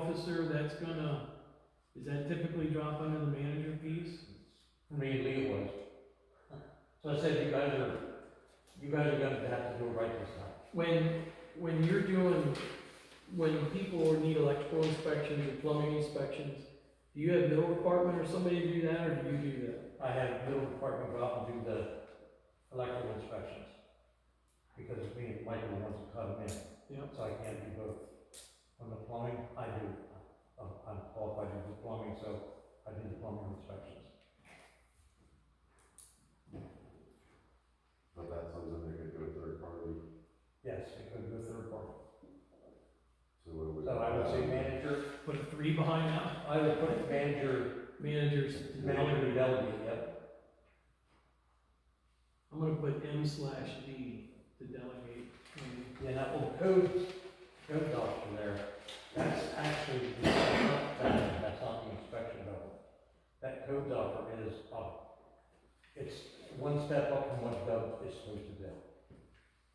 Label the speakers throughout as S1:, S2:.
S1: officer, that's gonna, is that typically drop under the manager piece?
S2: For me, Lee was. So I said, you guys are, you guys are gonna have to do it right this time.
S1: When, when you're doing, when people need electrical inspections or plumbing inspections, do you have no department or somebody to do that, or do you do that?
S2: I had a little department go out and do the electrical inspections. Because me and Michael wants to cut them in.
S1: Yep.
S2: So I can't do both. On the plumbing, I do, I'm, I'm qualified to do plumbing, so I do the plumbing inspections.
S3: But that's something they could do a third party,
S2: Yes, I could do a third party.
S3: so what would.
S2: So I would say manager,
S1: Put a three behind that,
S2: I would put manager,
S1: managers,
S2: manager delegate, yep.
S1: I'm gonna put M slash D to delegate. Um,
S2: Yeah, that little code, code officer there, that's actually, the- that's not the inspection level. That code officer is, uh, it's one step up from what Doug is supposed to do.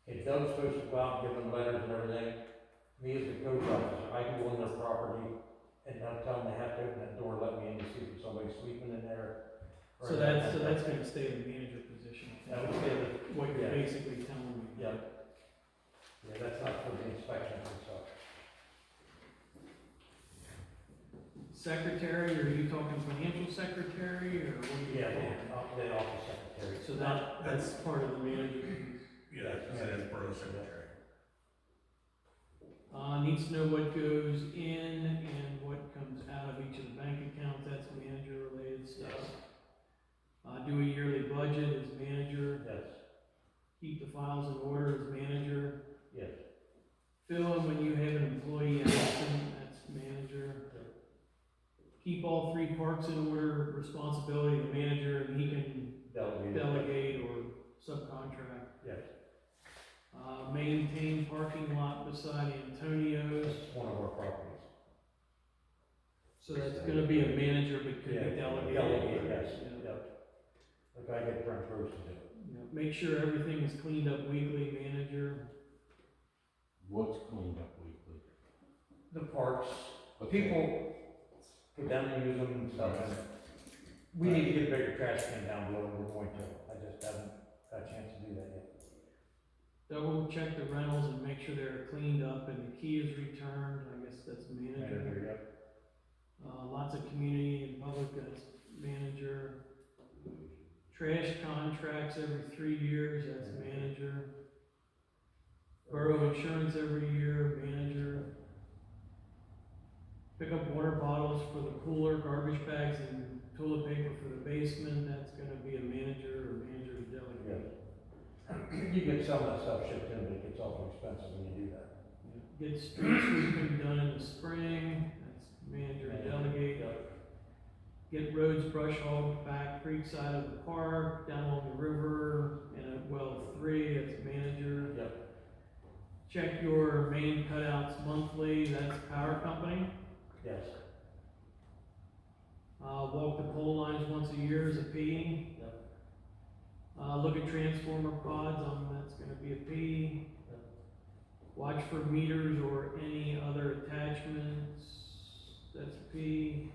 S2: If Doug's supposed to go out and give them letters and everything, me as the code officer, I can go on their property and not tell them they have to open that door, let me in to see if somebody's sleeping in there. or
S1: So that's, so that's gonna stay in the manager position. I think.
S2: That would be the
S1: What you're
S2: Yeah.
S1: basically telling me.
S2: Yeah. Yeah, that's not for the inspection itself.
S1: Secretary, or are you talking financial secretary, or what are you?
S2: Yeah,
S1: talking?
S2: the, off- the office secretary.
S1: So that, that's part of the manager.
S4: Yeah, that's, that's part of the secretary.
S1: Uh, needs to know what goes in and what comes out of each of the bank accounts, that's manager related stuff. Uh, do a yearly budget as manager,
S2: Yes,
S1: keep the files in order as manager.
S2: yes.
S1: Fill in when you have an employee absent, that's manager. Keep all three parks in order, responsibility of the manager, and he can
S2: Delegate.
S1: delegate or subcontract.
S2: Yes,
S1: Uh, maintain parking lot beside Antonio's,
S2: this is one of our properties.
S1: so that's gonna be a manager, but could be
S2: Yeah,
S1: delegated.
S2: Delegate, yes,
S1: Yeah.
S2: yep. Like I get front rows to do.
S1: Yeah. Make sure everything is cleaned up weekly, manager.
S5: What's cleaned up weekly?
S2: The parks, people go down and use them and stuff, and we need to get a bigger trash can down below, we're going to. I just haven't got a chance to do that yet.
S1: Double check the rentals and make sure they're cleaned up and the key is returned, I guess that's manager.
S2: Manager, yep.
S1: Uh, lots of community and public goods manager. Trash contracts every three years, that's manager. Borough insurance every year, manager. Pick up water bottles for the cooler, garbage bags and toilet paper for the basement, that's gonna be a manager or manager to delegate.
S2: You get some of that stuff shipped in, but it gets awful expensive when you do that.
S1: Get street sweeping done in the spring, that's manager to delegate.
S2: Yep.
S1: get roads brush hauled back creek side of the park, down along the river, and at well three, that's manager.
S2: Yep,
S1: Check your main cutouts monthly, that's power company.
S2: yes.
S1: Uh, walk the pole lines once a year is a P.
S2: Yep.
S1: Uh, look at transformer pods, um, that's gonna be a P.
S2: Yep.
S1: Watch for meters or any other attachments, that's a P.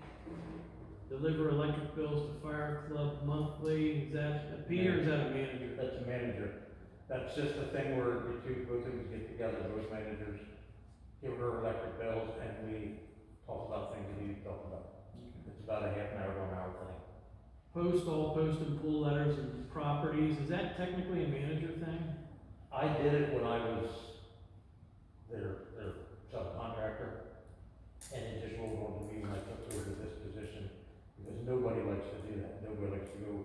S1: Deliver electric bills to fire club monthly, is that a P or is that a manager?
S2: That's a manager. That's just a thing where the two, both of us get together, both managers, give her electric bills, and we talk about things we need to talk about. It's about a half an hour, one hour thing.
S1: Post all post and pull letters and properties, is that technically a manager thing?
S2: I did it when I was their, their subcontractor, and it just rolled on to me when I took over this position, because nobody likes to do that. Nobody likes to go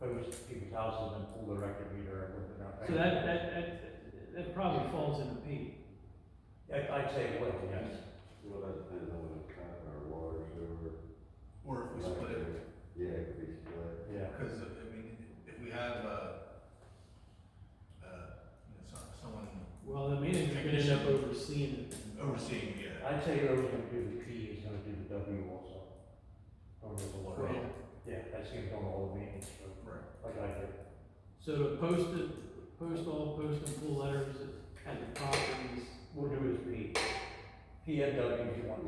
S2: post people's houses and pull the record meter and whatnot.
S1: So that, that, that, that probably falls in a P.
S2: I- I'd say it would, yes.
S3: Well, that depends on what it's kind of, or water, sewer.
S4: Or if we split it,
S3: electric. Yeah, it could be split.
S2: Yeah.
S4: because, I mean, if we have, uh, uh, you know, some- someone
S1: Well, the manager's gonna end up overseeing it.
S4: overseeing, yeah,
S2: I'd say Earl's gonna do the P, he's gonna do the W also. Or the
S1: Right.
S2: lawyer. Yeah, that's him doing all the maintenance, so,
S4: right,
S2: like I did.
S1: So to post it, post all post and pull letters at the properties,
S2: We'll do his P. P and W if you want